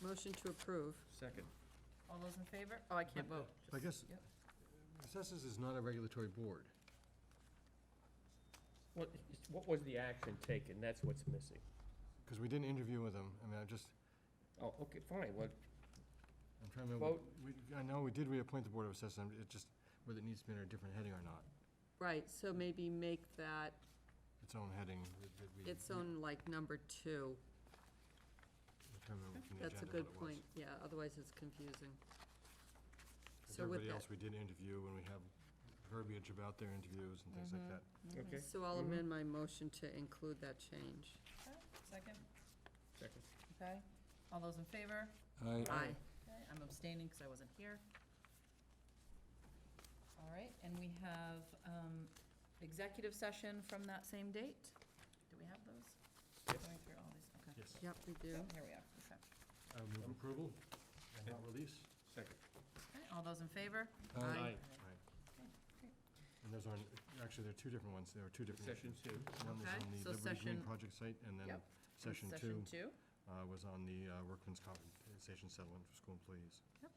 motion to approve. Second. All those in favor? Oh, I can't vote. I guess, Yep. assessors is not a regulatory board. What, it's- what was the action taken? That's what's missing. Because we didn't interview with them, I mean, I just, Oh, okay, fine, well, I'm trying to remember. we- I know we did reappoint the Board of Assessors, I'm- it just, whether it needs to be under a different heading or not, Right, so maybe make that its own heading that- that we. its own like number two. I'm trying to remember from the That's a agenda good what it was. point, yeah, otherwise it's confusing. 'Cause So with Everybody that, else we did interview, and we have verbiage about their interviews and things like that. okay, so I'll amend my motion to include that change. Second, second. okay. All those in favor? Aye. Okay, I'm abstaining because I wasn't here. All right, and we have um, executive session from that same date. Do we have those? Going through all these, okay. Yes. Yep, we do. So, Here we are, okay. I would move approval and not release. Second. Okay, All those in favor? Aye. Right. Okay, great. And those are, actually, there are two different ones, there are two different. Session two. One was Okay, on the so Liberty Green session- project site, and then Yep. session Session two two, uh, was on the uh, workman's compensation settlement for school employees. Yep.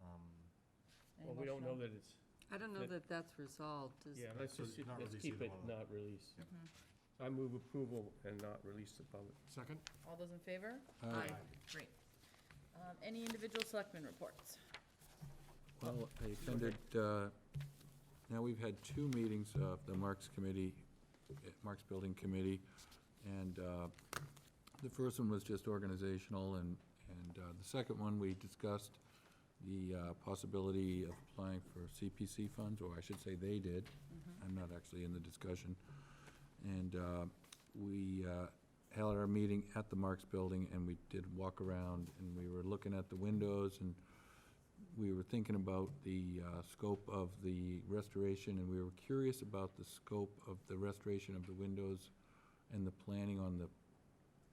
Um, Any Well, we don't know motion that it's, I don't know That- that that's resolved, is, yeah, let's So just, not let's release keep either it one of them. not released. Yep. Mm-hmm. I move approval and not release the public. Second? on- All those in favor? Aye. Great. Um, Any individual selectmen reports? Well, I attended, uh, now we've had two meetings of the Marks Committee, eh, Marks Building Committee, and uh, the first one was just organizational, and, and uh, the second one, we discussed the uh, possibility of applying for CPC funds, or I should say they did. I'm not actually in the discussion. And uh, we uh, held our meeting at the Marks Building, and we did walk around, and we were looking at the windows, and we were thinking about the uh, scope of the restoration, and we were curious about the scope of the restoration of the windows and the planning on the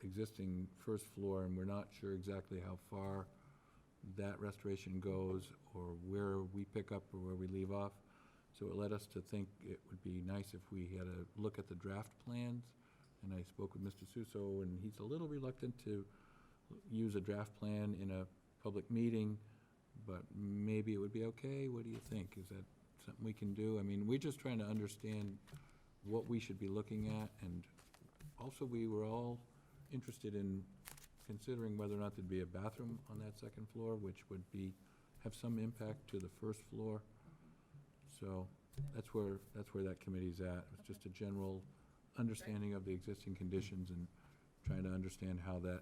existing first floor, and we're not sure exactly how far that restoration goes, or where we pick up or where we leave off. So it led us to think it would be nice if we had a look at the draft plans, and I spoke with Mr. Suso, and he's a little reluctant to use a draft plan in a public meeting, but maybe it would be okay. What do you think? Is that something we can do? I mean, we're just trying to understand what we should be looking at, and also, we were all interested in considering whether or not there'd be a bathroom on that second floor, which would be, have some impact to the first floor. So that's where, that's where that committee's at. It was just a general understanding of the existing conditions and trying to understand how that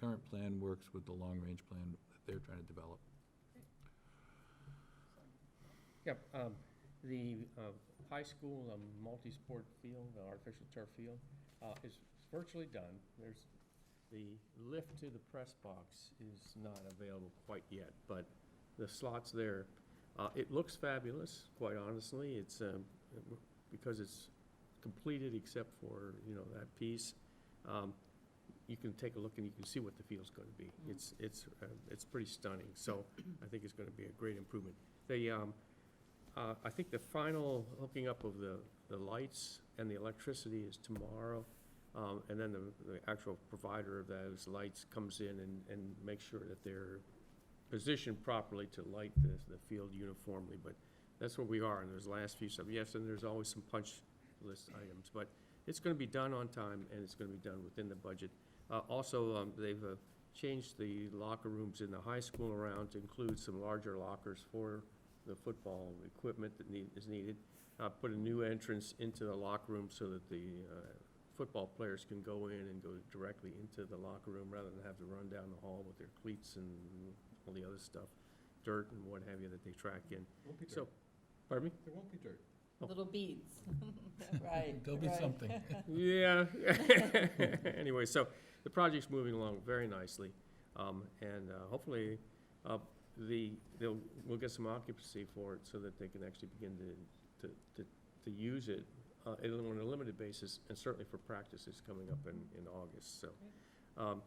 current plan works with the long-range plan that they're trying to develop. Yep, um, the, uh, high school, um, multi-sport field, the artificial turf field, uh, is virtually done. There's, the lift to the press box is not available quite yet, but the slot's there. Uh, it looks fabulous, quite honestly. It's, um, because it's completed except for, you know, that piece. Um, you can take a look and you can see what the field's gonna be. It's, it's, uh, it's pretty stunning, so I think it's gonna be a great improvement. The, um, uh, I think the final hooking up of the, the lights and the electricity is tomorrow. Um, and then the, the actual provider of those lights comes in and, and makes sure that they're positioned properly to light the, the field uniformly. But that's where we are in those last few stuff. Yes, and there's always some punch list items, but it's gonna be done on time and it's gonna be done within the budget. Uh, also, um, they've, uh, changed the locker rooms in the high school around to include some larger lockers for the football equipment that need, is needed. Uh, put a new entrance into the locker room so that the, uh, football players can go in and go directly into the locker room rather than have to run down the hall with their cleats and all the other stuff, dirt and what have you that they track in. Won't be So, pardon me? There won't be dirt. Oh. Little beads. Right. There'll be right. something. Yeah. Anyway, so the project's moving along very nicely. Um, and uh, hopefully, uh, the, they'll, we'll get some occupancy for it so that they can actually begin to, to, to, to use it, uh, and on a limited basis, and certainly for practices coming up in, in August, so. Um,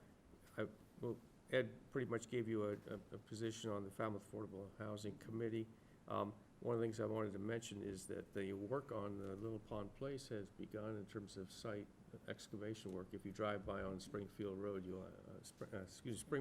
I, well, Ed pretty much gave you a, a, a position on the Falmouth Affordable Housing Committee. Um, one of the things I wanted to mention is that the work on the Little Pond Place has begun in terms of site excavation work. If you drive by on Springfield Road, you'll, uh, uh, Spr- uh, excuse, Spring